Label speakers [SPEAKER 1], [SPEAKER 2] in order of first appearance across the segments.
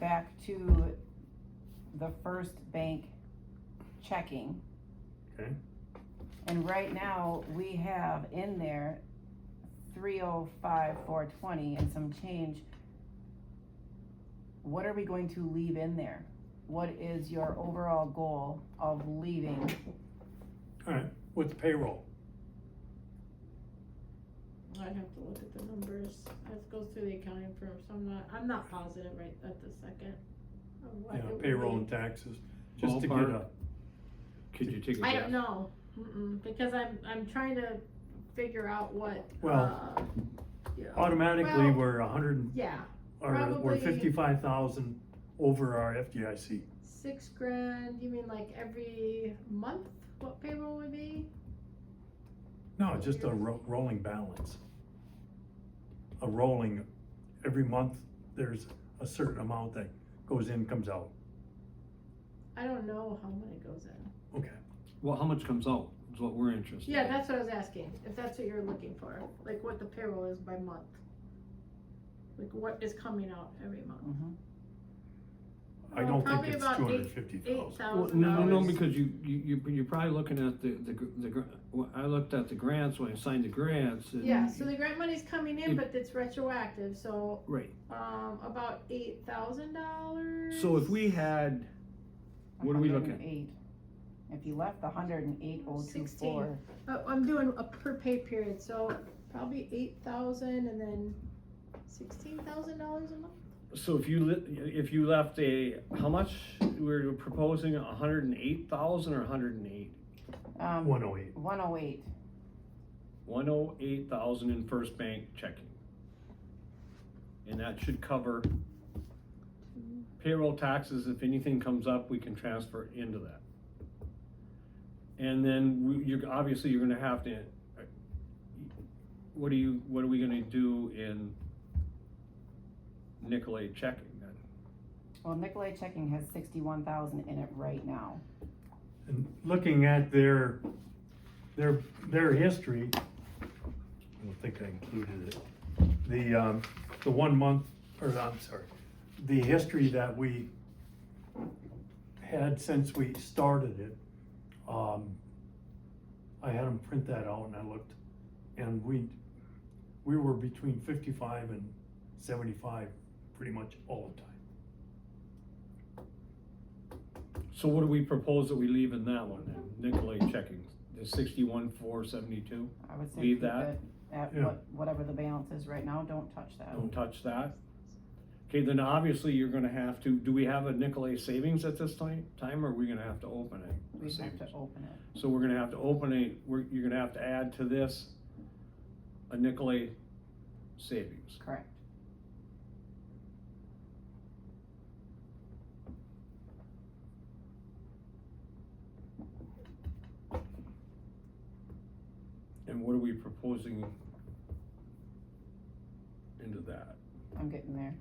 [SPEAKER 1] back to the first bank checking.
[SPEAKER 2] Okay.
[SPEAKER 1] And right now, we have in there three oh five, four twenty and some change. What are we going to leave in there? What is your overall goal of leaving?
[SPEAKER 2] with the payroll.
[SPEAKER 3] I'd have to look at the numbers, I have to go through the accounting firm, so I'm not, I'm not positive right at the second. of what
[SPEAKER 2] Yeah,
[SPEAKER 3] it would
[SPEAKER 2] payroll
[SPEAKER 3] be.
[SPEAKER 2] and taxes, just to get
[SPEAKER 4] Ballpark.
[SPEAKER 2] a,
[SPEAKER 4] Could you take a
[SPEAKER 3] I don't
[SPEAKER 4] guess?
[SPEAKER 3] know, mm-mm, because I'm, I'm trying to figure out what,
[SPEAKER 2] well,
[SPEAKER 3] uh, you know,
[SPEAKER 2] automatically,
[SPEAKER 3] Well-
[SPEAKER 2] we're a hundred,
[SPEAKER 3] yeah,
[SPEAKER 2] or we're
[SPEAKER 3] probably-
[SPEAKER 2] fifty-five thousand over our FDIC.
[SPEAKER 3] six grand, you mean like every month, what payroll would be?
[SPEAKER 2] No, just a ro- rolling balance. A rolling, every month, there's a certain amount that goes in, comes out,
[SPEAKER 3] I don't know how many goes in.
[SPEAKER 2] okay.
[SPEAKER 4] Well, how much comes out is what we're interested in.
[SPEAKER 3] Yeah, that's what I was asking, if that's what you're looking for, like what the payroll is by month. Like what is coming out every month.
[SPEAKER 4] Mm-hmm.
[SPEAKER 2] I
[SPEAKER 3] Well,
[SPEAKER 2] don't think
[SPEAKER 3] probably
[SPEAKER 2] it's
[SPEAKER 3] about
[SPEAKER 2] two
[SPEAKER 3] eight-
[SPEAKER 2] hundred and fifty
[SPEAKER 3] Eight
[SPEAKER 2] thousand.
[SPEAKER 4] Well,
[SPEAKER 3] thousand
[SPEAKER 4] no, no,
[SPEAKER 3] dollars.
[SPEAKER 4] because you, you, you- you're probably looking at the, the, gr- the, gr- well, I looked at the grants when I signed the grants. and-
[SPEAKER 3] Yeah, so the grant money's coming in,
[SPEAKER 4] Mm-hmm. It-
[SPEAKER 3] but it's retroactive, so,
[SPEAKER 4] Right,
[SPEAKER 3] um, about eight thousand dollars.
[SPEAKER 4] so if we had, what are we looking at?
[SPEAKER 1] 108. If you left the hundred and eight oh two four,
[SPEAKER 3] 16. Uh, I'm doing a per pay period, so probably eight thousand and then sixteen thousand dollars a month?
[SPEAKER 4] So if you, li- if you left a, how much, we're proposing a hundred and eight thousand or a hundred and eight?
[SPEAKER 1] um,
[SPEAKER 2] One oh eight,
[SPEAKER 1] one oh eight,
[SPEAKER 4] One oh eight thousand in First Bank checking. And that should cover payroll taxes, if anything comes up, we can transfer into that. And then we- you're, obviously, you're gonna have to, what are you, what are we gonna do in Nicolay checking then?
[SPEAKER 1] well, Nicolay checking has sixty-one thousand in it right now.
[SPEAKER 2] and looking at their, their, their history, I don't think I included it. The, um, the one month, or I'm sorry, the history that we had since we started it, um, I had them print that out and I looked, and we, we were between fifty-five and seventy-five pretty much all the time.
[SPEAKER 4] So what do we propose that we leave in that one then, Nicolay checking, the sixty-one, four seventy-two?
[SPEAKER 1] I would say
[SPEAKER 4] Leave
[SPEAKER 1] keep
[SPEAKER 4] that?
[SPEAKER 1] it at
[SPEAKER 2] Yeah.
[SPEAKER 1] what, whatever the balance is right now, don't touch that.
[SPEAKER 4] Don't touch that. Okay, then obviously you're gonna have to, do we have a Nicolay savings at this time, time, or are we gonna have to open it?
[SPEAKER 1] We have to
[SPEAKER 4] Savings.
[SPEAKER 1] open it.
[SPEAKER 4] So we're gonna have to open a, we're, you're gonna have to add to this a Nicolay savings.
[SPEAKER 1] Correct.
[SPEAKER 4] And what are we proposing into that?
[SPEAKER 1] I'm getting there.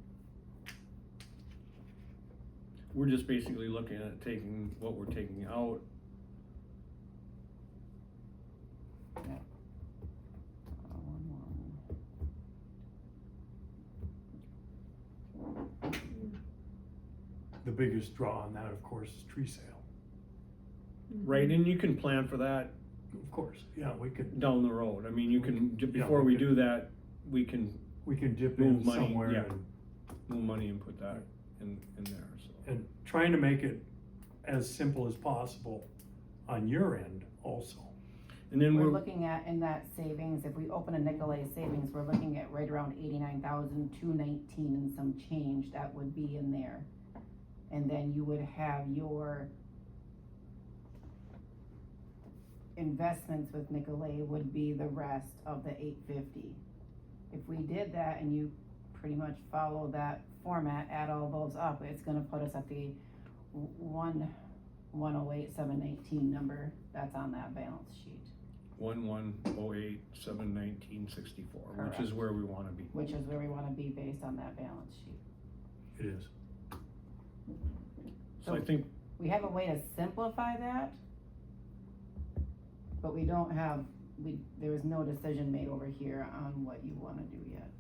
[SPEAKER 4] We're just basically looking at taking what we're taking out.
[SPEAKER 1] Uh, one more.
[SPEAKER 2] The biggest draw on that, of course, is tree sale.
[SPEAKER 4] Right, and you can plan for that
[SPEAKER 2] Of course, yeah, we could,
[SPEAKER 4] down the road. I mean, you can, j-
[SPEAKER 2] Yeah,
[SPEAKER 4] before
[SPEAKER 2] we
[SPEAKER 4] we
[SPEAKER 2] could-
[SPEAKER 4] do that, we can
[SPEAKER 2] we can dip
[SPEAKER 4] Move
[SPEAKER 2] in
[SPEAKER 4] money,
[SPEAKER 2] somewhere
[SPEAKER 4] yeah.
[SPEAKER 2] and,
[SPEAKER 4] move money and put that in, in there, so.
[SPEAKER 2] and trying to make it as simple as possible on your end also.
[SPEAKER 4] And then
[SPEAKER 1] We're
[SPEAKER 4] we're,
[SPEAKER 1] looking at in that savings, if we open a Nicolay savings, we're looking at right around eighty-nine thousand, two nineteen and some change that would be in there. And then you would have your investments with Nicolay would be the rest of the eight fifty. If we did that and you pretty much follow that format, add all those up, it's gonna put us at the one, one oh eight, seven nineteen number that's on that balance sheet.
[SPEAKER 4] one, one, oh, eight, seven, nineteen, sixty-four, which is
[SPEAKER 1] Correct.
[SPEAKER 4] where we wanna be.
[SPEAKER 1] which is where we wanna be based on that balance sheet.
[SPEAKER 2] It is.
[SPEAKER 4] So I think,
[SPEAKER 1] We have a way to simplify that, but we don't have, we, there was no decision made over here on what you wanna do yet.